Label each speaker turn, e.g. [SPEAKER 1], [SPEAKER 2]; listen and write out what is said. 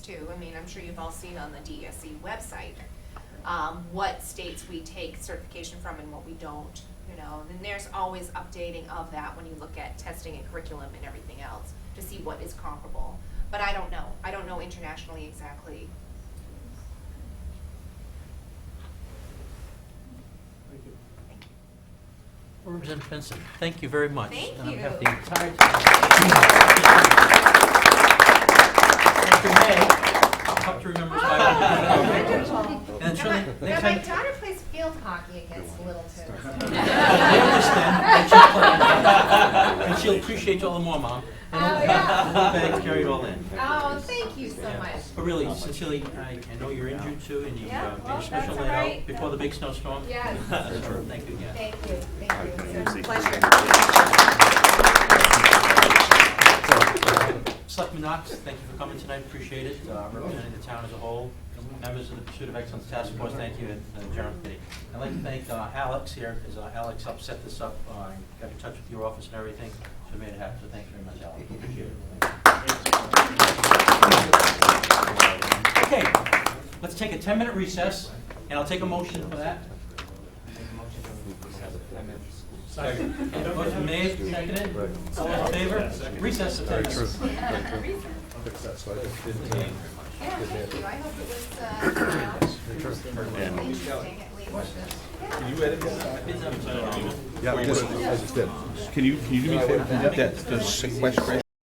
[SPEAKER 1] too, I mean, I'm sure you've all seen on the DESE E website, um, what states we take certification from and what we don't, you know, and there's always updating of that when you look at testing and curriculum and everything else, to see what is comparable, but I don't know, I don't know internationally exactly.
[SPEAKER 2] Thank you.
[SPEAKER 3] Representative Benson, thank you very much.
[SPEAKER 1] Thank
[SPEAKER 3] And I have
[SPEAKER 1] you.
[SPEAKER 3] the entire time. Dr. May, I'll have to remember. if I-
[SPEAKER 1] Oh,
[SPEAKER 3] And
[SPEAKER 1] Now,
[SPEAKER 3] she'll-
[SPEAKER 1] my- now
[SPEAKER 3] next
[SPEAKER 1] my
[SPEAKER 3] time-
[SPEAKER 1] daughter plays field hockey against Littleton.
[SPEAKER 3] I understand, and she'll play. And she'll appreciate you all the more, Mom. And
[SPEAKER 1] Oh,
[SPEAKER 3] hope-
[SPEAKER 1] yeah.
[SPEAKER 3] hope that carried all in.
[SPEAKER 1] Oh, thank you so
[SPEAKER 3] Yeah.
[SPEAKER 1] much.
[SPEAKER 3] But really, sincerely, I I know you're injured too, and you,
[SPEAKER 1] Yeah,
[SPEAKER 3] uh, made
[SPEAKER 1] well,
[SPEAKER 3] a special
[SPEAKER 1] that's all
[SPEAKER 3] layout
[SPEAKER 1] right.
[SPEAKER 3] before the big snowstorm.
[SPEAKER 1] Yes.
[SPEAKER 3] So, Thank you again.
[SPEAKER 1] Thank you, thank you. It's a
[SPEAKER 4] Music.
[SPEAKER 1] pleasure.
[SPEAKER 3] Selectman Knox, thank you for coming tonight, appreciate it, uh, representing the town as a whole. Members of the Pursuit of Excellence Task Force, thank you, and the General Committee. I'd like to thank uh, Alex here, because Alex helped set this up, uh, got in touch with your office and everything, so made it happen, so thank you very much, Alex. Appreciate it. Okay, let's take a 10-minute recess, and I'll take a motion for that. Motion made, seconded, all those in favor? Recess to 10 minutes.
[SPEAKER 1] uh, Yeah, thank you, I hope it was, uh, you know, interesting at least. Yeah.
[SPEAKER 4] Yeah, just, I just did. Can you, can you do me a favor? That, the sequestration